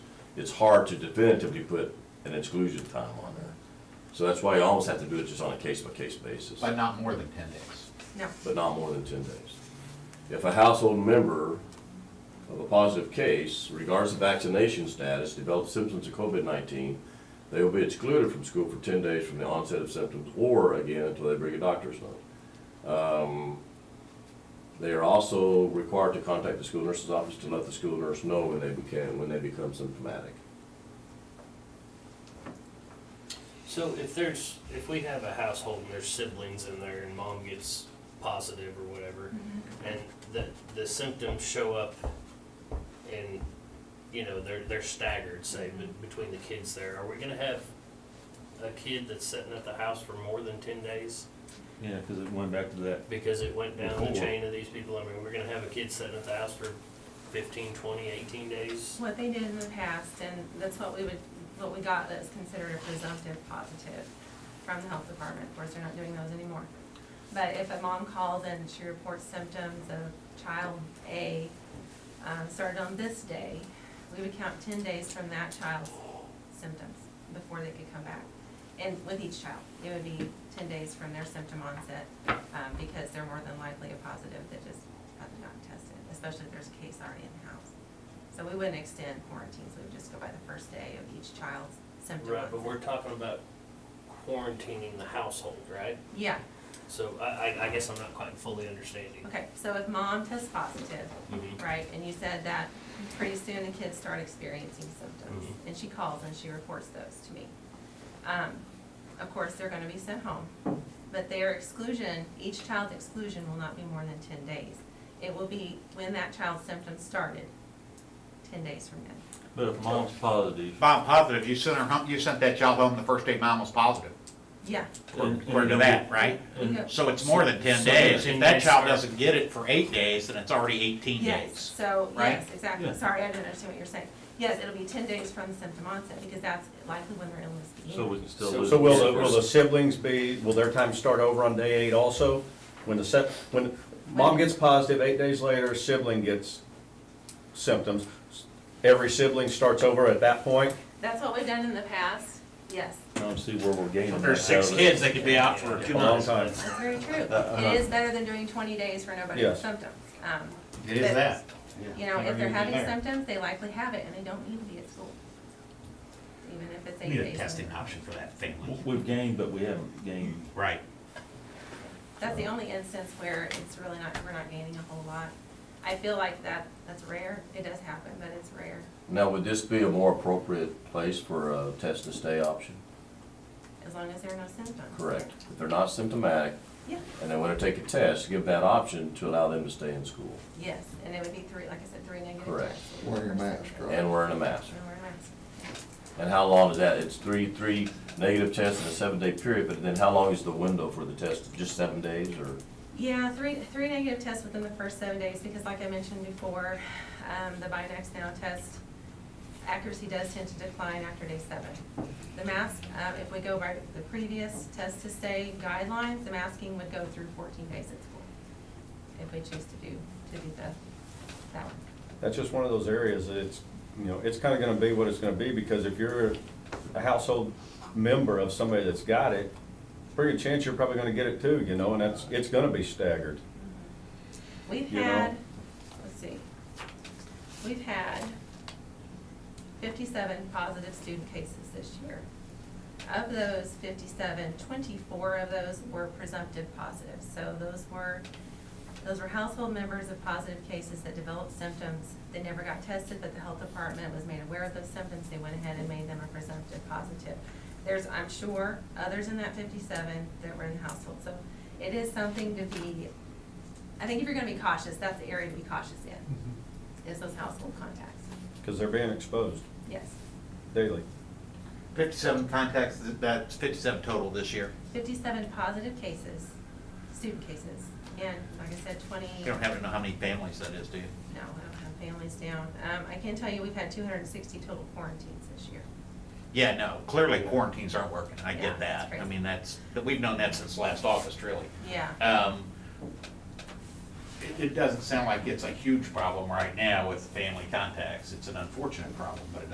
it's hard to definitively put an exclusion time on there. So that's why you almost have to do it just on a case-by-case basis, But not more than ten days. No, but not more than ten days. If a household member of a positive case, regardless of vaccination status, develops symptoms of COVID-19, they will be excluded from school for ten days from the onset of symptoms, or again, until they bring a doctor's note. Um, They are also required to contact the school nurse's office to let the school nurse know when they became, when they become symptomatic. So if there's, if we have a household and there's siblings in there and mom gets positive or whatever, and the, the symptoms show up and, you know, they're, they're staggered, say, be- between the kids there, are we gonna have a kid that's sitting at the house for more than ten days? Yeah, because it went back to that. Because it went down the Before. chain of these people, I mean, we're gonna have a kid sitting at the house for fifteen, twenty, eighteen days? what they did in the past, and that's what we would, what we got that was considered a presumptive positive from the health department, of course, they're not doing those anymore. But if a mom calls and she reports symptoms of child A, um, started on this day, we would count ten days from that child's symptoms before they could come back. And with each child, it would be ten days from their symptom onset, um, because they're more than likely a positive that just hasn't gotten tested, especially if there's a case already in the house. So we wouldn't extend quarantines, we would just go by the first day of each child's symptom Right, but we're onset. talking about quarantining the household, right? Yeah, So I, I, I guess I'm not quite fully understanding. okay, so if mom tests positive, Mhm. right, and you said that pretty soon the kids start experiencing symptoms, Mm-hmm. Mhm. and she calls and she reports those to me. Um, Of course, they're gonna be sent home, but their exclusion, each child's exclusion will not be more than ten days. It will be when that child's symptoms started, ten days from then. But if mom's positive, Mom positive, you sent her home, you sent that child home the first day mom was positive, Yeah, And- according to and- that, right? and So it's more than ten So- days. If that child 10 days. doesn't get it for eight days, then it's already eighteen yes, days. so, yes, right? exactly, Yeah. sorry, I didn't understand what you're saying. Yes, it'll be ten days from the symptom onset, because that's likely when their illness begins. so we can still So- lose. So will, the the- will the siblings be, will their time start over on day eight also? When the sep, when mom gets positive, eight days later, sibling gets symptoms. Every sibling starts over at that point? That's what we've done in the past, yes. I don't see where we're gaining. If there's six that out of it. kids, they could be out for two A long months. time. That's very true. It is better than doing twenty days for nobody with Yes. symptoms. Um, It is that. You know, if they're having Yeah. symptoms, they likely have it, and they don't need to be at school. Even if it's We eight Need a days. testing option for that family. We've gained, but we haven't gained. Right. That's the only instance where it's really not, we're not gaining a whole lot. I feel like that, that's rare. It does happen, but it's rare. Now, would this be a more appropriate place for a test and stay option? As long as there are no symptoms. Correct. If they're not symptomatic Yeah, and they want to take a test, give that option to allow them to stay in school yes, and it would be three, like I said, three negative Correct. tests. Wearing a mask, right? and wearing a mask. And wearing a mask. And how long is that? It's three, three negative tests in a seven-day period, but then how long is the window for the test? Just seven days or? Yeah, three, three negative tests within the first seven days, because like I mentioned before, um, the Binax Now test accuracy does tend to decline after day seven. The mask, um, if we go by the previous test to stay guidelines, the masking would go through fourteen days at school, if we choose to do, to do the, that one. That's just one of those areas that it's, you know, it's kinda gonna be what it's gonna be, because if you're a household member of somebody that's got it, pretty good chance you're probably gonna get it too, you know, and that's, it's gonna be staggered. We've You know? had, let's see, we've had fifty-seven positive student cases this year. Of those 57, 24 of those were presumptive positive, so those were, those were household members of positive cases that developed symptoms. They never got tested, but the health department was made aware of those symptoms, they went ahead and made them a presumptive positive. There's, I'm sure, others in that fifty-seven that were in the household, so it is something to be I think if you're gonna be cautious, that's the area to be cautious in, is those household contacts. Because they're being exposed Yes. daily. Fifty-seven contacts, that's fifty-seven total this year. Fifty-seven positive cases, student cases, and like I said, twenty, You no, don't have to know how many families that is, do you? I don't have families down. Um, I can tell you, we've had two hundred and sixty total quarantines this year. Yeah, no, clearly quarantines aren't working, I Yeah, get that's that. crazy. I mean, that's, but we've known that since last August, really. Yeah. Um, It, it doesn't sound like it's a huge problem right now with family contacts. It's an unfortunate problem, but it